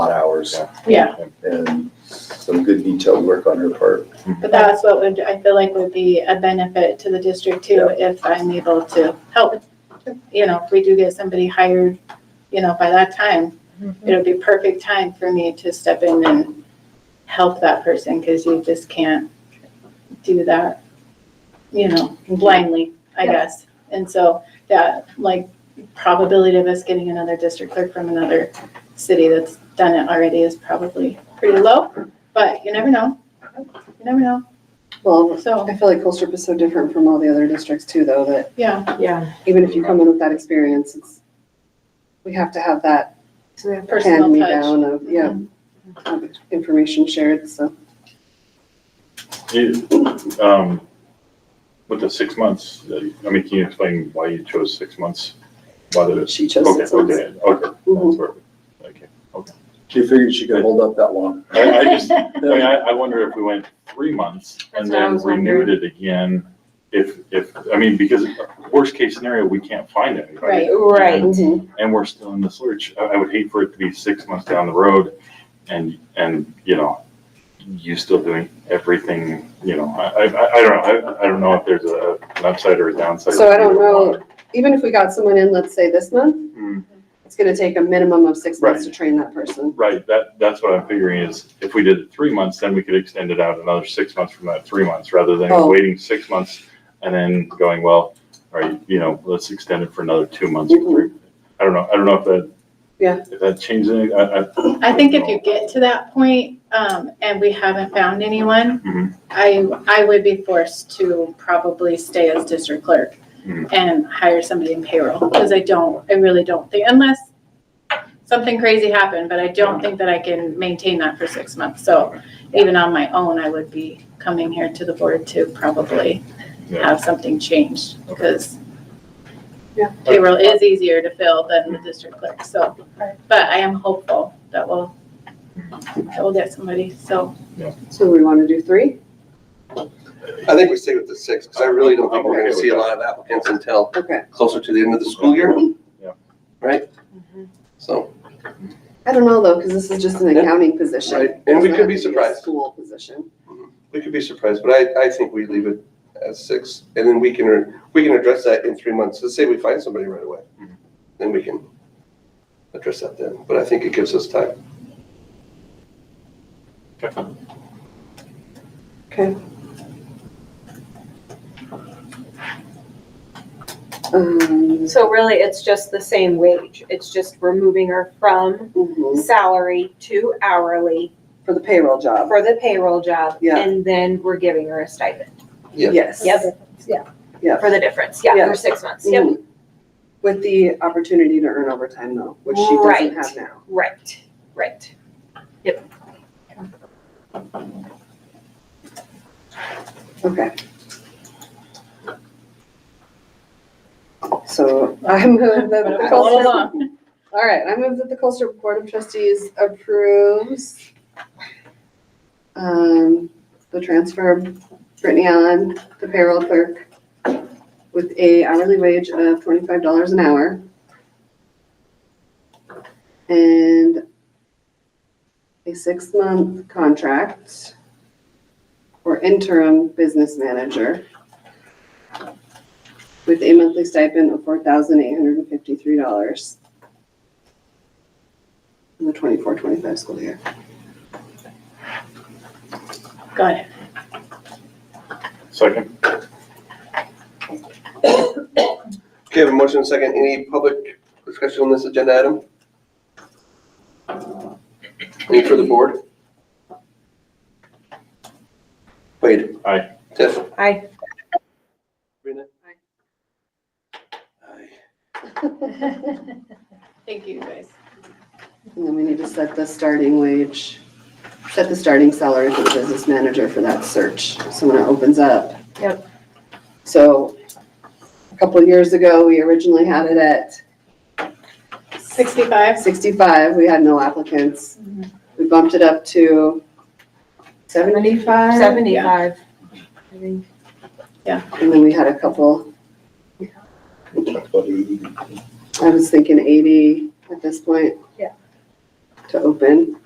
hours Yeah, and some good detailed work on her part. but that's what would, I feel like would be a benefit to the district too, if I'm able to help. You know, if we do get somebody hired, you know, by that time, it'll be perfect time for me to step in and help that person, because you just can't do that, you know, blindly, I Yeah. guess. And so that, like, probability of us getting another district clerk from another city that's done it already is probably pretty low, but you never know. You never know. Well, So, I feel like Colstrip is so different from all the other districts too, though, that yeah, Yeah. even if you come in with that experience, it's, we have to have that So we have Mm-hmm. hand personal me touch. down of, yeah, of information shared, so. It- um, With the six months, uh, I mean, can you explain why you chose six months? Why did it? She chose Okay, six months. Okay, okay, that's Mhm. where, we- okay. She figured she could hold up that long. I, I just, I mean, I, I wonder if we went three months That's and what I then was renewed it again, if, if, I mean, because worst case scenario, we can't find Right. anybody. Right. Mhm. and we're still in the search. I, I would hate for it to be six months down the road and, and, you know, you still doing everything, you know, I, I, I- I don't know. I, I don't know if there's a, an upside or a downside. So I don't know, even if we got someone in, let's say this month, Hmm, it's gonna take a minimum of six months to Right. train that person. Right, that, that's what I'm figuring is if we did it three months, then we could extend it out another six months from that three months, rather than Oh. waiting six months and then going, well, all right, you know, let's extend it for another two months. Mhm. or three. I don't know, I don't know if that. Yeah. If that changes anything, I, I. I think if you get to that point, um, and we haven't found Mhm. anyone, I, I would be forced to probably stay as district clerk Mhm. and hire somebody in payroll, because I don't, I really don't think, unless something crazy happened, but I don't think that I can maintain that for six months. So even on my own, I would be coming here to the board to probably Yeah. have something changed, because Yeah. payroll is easier to fill than the district clerk, so. But I am hopeful that we'll, that we'll get somebody, so. So we wanna do three? I think we stay with the six, because I really don't think we're gonna see a lot of applicants until Okay. closer to the end of the school year. Yeah. Right? So, I don't know though, cause this is just an Yeah. accounting position. right, and we It's could not be a surprised, School position. we could be surprised, but I, I think we leave it as six, and then we can, we can address that in three months, let's say we find somebody right away. Mhm. Then we can address that then, but I think it gives us time. Okay. Um, So really, it's just the same wage. It's just we're moving her from mhm, salary to hourly For the payroll job. for the payroll job. Yeah. And then we're giving her a stipend. Yeah. Yes. Yeah. For the difference, yeah, Yeah. for six months, yep, Mhm. With the opportunity to earn overtime though, which she doesn't Right. have now. right, right. Okay. So I move that the Hold Colstrip, on. all right, I move that the Colstrip Board of Trustees approves um, the transfer of Brittany Allen, the payroll clerk, with a hourly wage of twenty-five dollars an hour. And a six-month contract for interim business manager with a monthly stipend of four thousand eight hundred and fifty-three dollars in the 24-25 school year. Got it. Second? Okay, have a motion and a second, any public discussion on this agenda item? Any for the board? Wade? Aye. Tiff? Aye. Sabrina? Aye. Thank you, guys. And then we need to set the starting wage, set the starting salary for the business manager for that search, so when it opens up. Yep. So a couple of years ago, we originally had it at Sixty-five? sixty-five, we had no applicants. We bumped it up to seventy-five? Seventy-five. I think. And then we had a couple, About eighty. I was thinking eighty at this point. Yeah. To open.